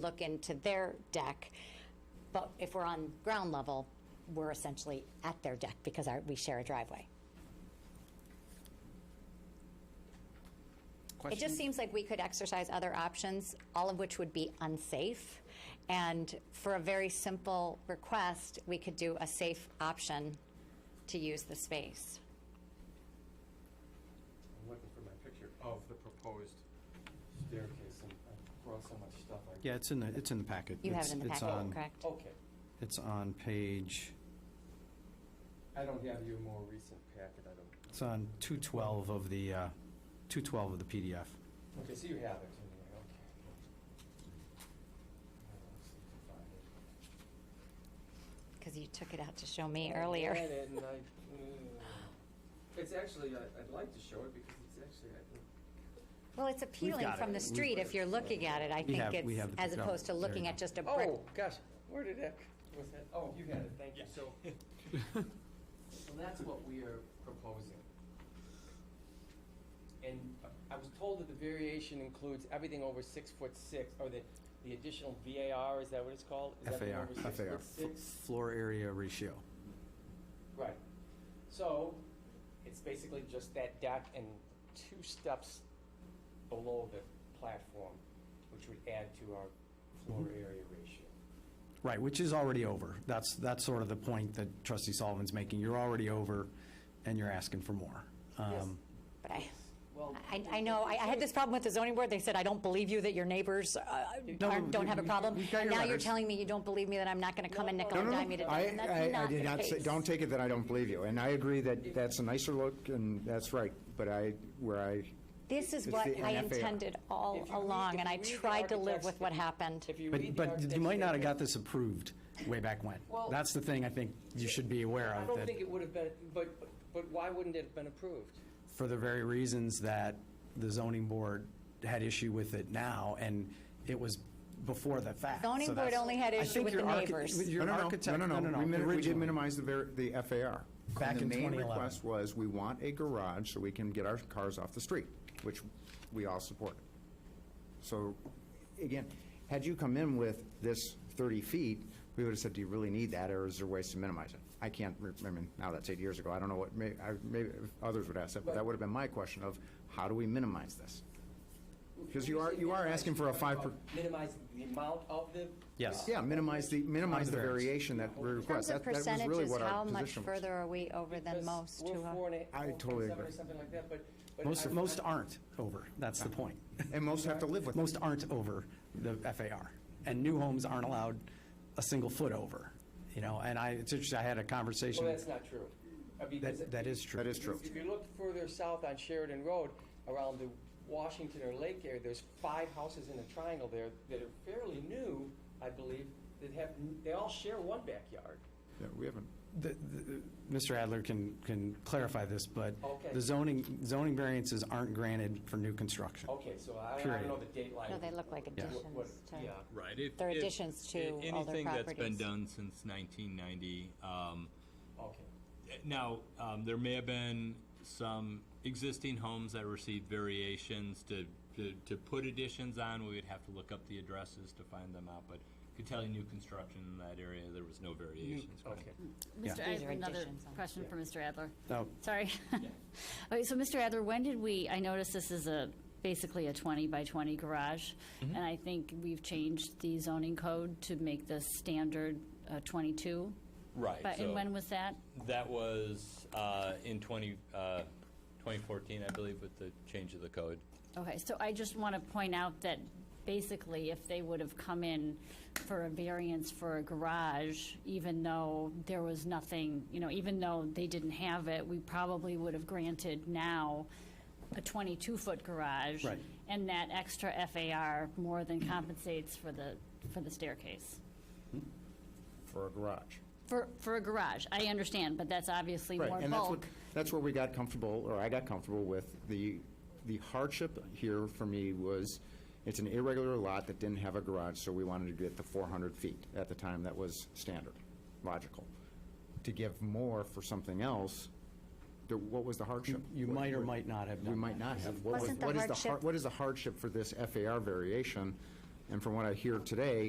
look into their deck, but if we're on ground level, we're essentially at their deck because our, we share a driveway. It just seems like we could exercise other options, all of which would be unsafe. And for a very simple request, we could do a safe option to use the space. I'm looking for my picture of the proposed staircase, and I brought so much stuff. I- Yeah, it's in the, it's in the packet. You have It's- it in the it's packet, on- Oh. correct? Okay, It's on page, I don't have your more recent packet, I don't. it's on 212 of the, uh, 212 of the PDF. Okay, so you have it, anyway, okay. Uh, let's see if I find it. Because you took it out to show me I earlier. had it and I- mm. It's actually, I- I'd like to show it because it's actually, I think, Well, it's appealing got from it. the We've- street if you're looking at it. I think have- we it's, have the as picture. opposed to There you looking go. at just a brick. oh, gosh, where did that, was that, oh, you had it, thank you, so. So that's what we are proposing. And uh, I was told that the variation includes everything over six foot six, or the, the additional VAR, is that what it's called? Is everything FAR, over six FAR, foot six? floor area ratio. Right. So, it's basically just that deck and two steps below the platform, which would add to our floor area ratio. Right, which is already over. That's, that's sort of the point that trustee Sullivan's making. You're already over and you're asking for more. Um, But I, Well, I, I know, I, I had this problem with the zoning board, they said, I don't believe you that your neighbors uh, aren't, don't have a we- problem. we got And your Now you're letters. telling me you don't believe me, that I'm not gonna come and nickel No, and no, dime you to death, I, and that's I, I not did not the say, case. don't take it that I don't believe you, and I agree that that's a nicer look, and that's right, but I, where I, This is It's what the I NFA. intended all If you read- along, if and you I read the tried to live architect's- with what happened. If you read But, the but you might not have architect's- got this approved way back when. Well- That's the thing I think you should be aware I of. don't that- think it would have been, but, but- but why wouldn't it have been approved? for the very reasons that the zoning board had issue with it now, and it was before the fact. Zoning So board that's- only had I issue think with your the archi- neighbors. with no, Your no, architect, no, no, no, we min- we did originally. minimize the ver, the FAR. Back in And the main 2011. request was, we want a garage so we can get our cars off the street, which we all support. So, again, had you come in with this thirty feet, we would have said, do you really need that, or is there ways to minimize it? I can't, re- I mean, now that's eight years ago, I don't know what, may, I, maybe others would ask that, but that would have been my question of, how do we minimize this? Because you are- you are asking for a five per- Minimize the amount of the. Yes. Yeah, minimize the, minimize the On the variance. variation that we In terms request. of That that was really percentages, what how our much position was. further are we over than because most? We're to a- four and a- I four point totally seven or agree. Something like that, but. but Most, I- most I- aren't over, that's the point. And most have to live with it. Most aren't over the FAR, and new homes aren't allowed a single foot over, you know, and I, it's interesting, I had a Well, conversation, that's not true. I mean, because that, that is true. That is true. If you look further south on Sheridan Road, around the Washington or Lake area, there's five houses in a triangle there that are fairly new, I believe, that have, they all share one backyard. Yeah, we haven't. The- the- Mr. Adler can, can clarify this, but Okay. the zoning, zoning variances aren't granted for new construction. Okay, so I, I don't Period. know the date line. No, they look like What- what- additions to. Yeah, Right. If, They're if- additions to a- older anything that's been properties. done since 1990. Um, okay. eh, now, um, there may have been some existing homes that received variations to, to, to put additions on. We would have to look up the addresses to find them out, but I could tell you new construction in that area, there was no variations. granted. Okay. Yeah. Mr. These are Adler, another additions on- question for Mr. Adler. Oh. Sorry. Okay, so Mr. Adler, when did we, I noticed this is a, basically a 20 by 20 garage, Mm-hmm. and I think we've changed the zoning code to make the standard uh, 22. Right. But, so and when was that? that was uh, in 20, uh, 2014, I believe, with the change of the code. Okay, so I just want to point out that basically if they would have come in for a variance for a garage, even though there was nothing, you know, even though they didn't have it, we probably would have granted now a 22-foot garage. Right. And that extra FAR more than compensates for the, for the staircase. For a garage. For, for a garage, I understand, but that's obviously Right, more and that's what, bulk. that's where we got comfortable, or I got comfortable with, the, the hardship here for me was, it's an irregular lot that didn't have a garage, so we wanted to get the four hundred feet. At the time, that was standard, logical. To give more for something else, the, what was the hardship? You might or might not have We done might that. not have. What was- Wasn't the what is har- hardship- What is the hardship for this FAR variation And from what I hear today,